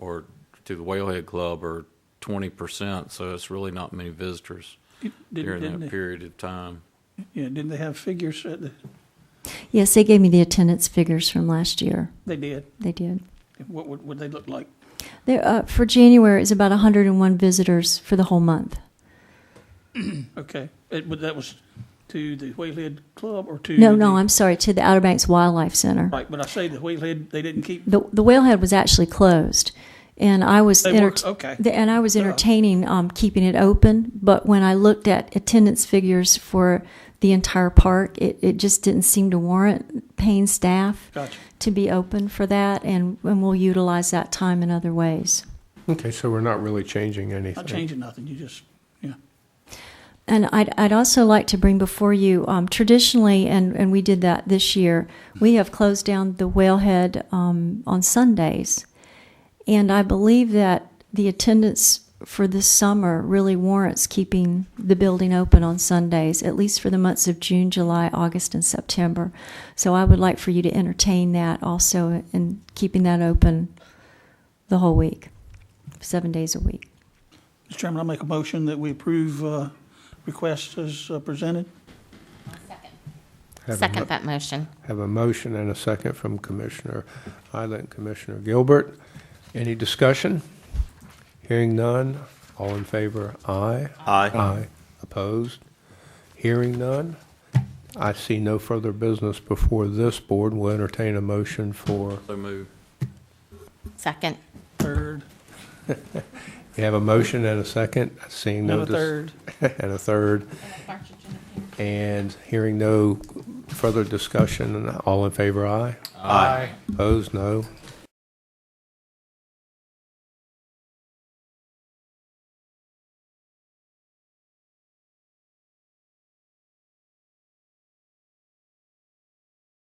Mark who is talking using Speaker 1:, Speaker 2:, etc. Speaker 1: to the Whalehead Club are twenty percent, so it's really not many visitors
Speaker 2: Did-
Speaker 1: during
Speaker 2: didn't
Speaker 1: that
Speaker 2: they-
Speaker 1: period of time.
Speaker 2: Yeah, didn't they have figures? Uh, at the-
Speaker 3: Yes, they gave me the attendance figures from last year.
Speaker 2: They did.
Speaker 3: They did.
Speaker 2: What would, would they look like?
Speaker 3: There, uh, for January, it's about 101 visitors for the whole month.
Speaker 2: Okay, It- but that was to the Whalehead Club or to?
Speaker 3: No, no,
Speaker 2: the-
Speaker 3: I'm sorry, to the Outer Banks Wildlife Center.
Speaker 2: Right, but I say the Whalehead, they didn't keep,
Speaker 3: The, the whalehead was actually closed, and I was
Speaker 2: They were-
Speaker 3: entert-
Speaker 2: okay. Uh-huh.
Speaker 3: the- and I was entertaining um, keeping it open. But when I looked at attendance figures for the entire park, it, it just didn't seem to warrant paying staff
Speaker 2: gotcha.
Speaker 3: to be open for that, and, and we'll utilize that time in other ways.
Speaker 4: Okay, so we're not really changing anything.
Speaker 2: Not changing nothing, you just, yeah.
Speaker 3: And I'd, I'd also like to bring before you um, traditionally, and, and we did that this year, we have closed down the whalehead um, on Sundays. And I believe that the attendance for this summer really warrants keeping the building open on Sundays, at least for the months of June, July, August, and September. So I would like for you to entertain that also and keeping that open the whole week, seven days a week.
Speaker 2: Mr. Chairman, I make a motion that we approve uh, requests as uh, presented.
Speaker 4: Have a mo-
Speaker 5: Second that motion.
Speaker 4: Have a motion and a second from Commissioner Isla and Commissioner Gilbert. Any discussion? Hearing none, all in favor, aye. Aye. Opposed? Hearing none. I see no further business before this board. We'll entertain a motion for,
Speaker 1: So move.
Speaker 5: Second.
Speaker 2: Third,
Speaker 4: we have a motion and a second, seeing no.
Speaker 2: and a
Speaker 4: dis-
Speaker 2: third.
Speaker 4: And a third. And hearing no further discussion, all in favor, aye. Aye. Opposed, no.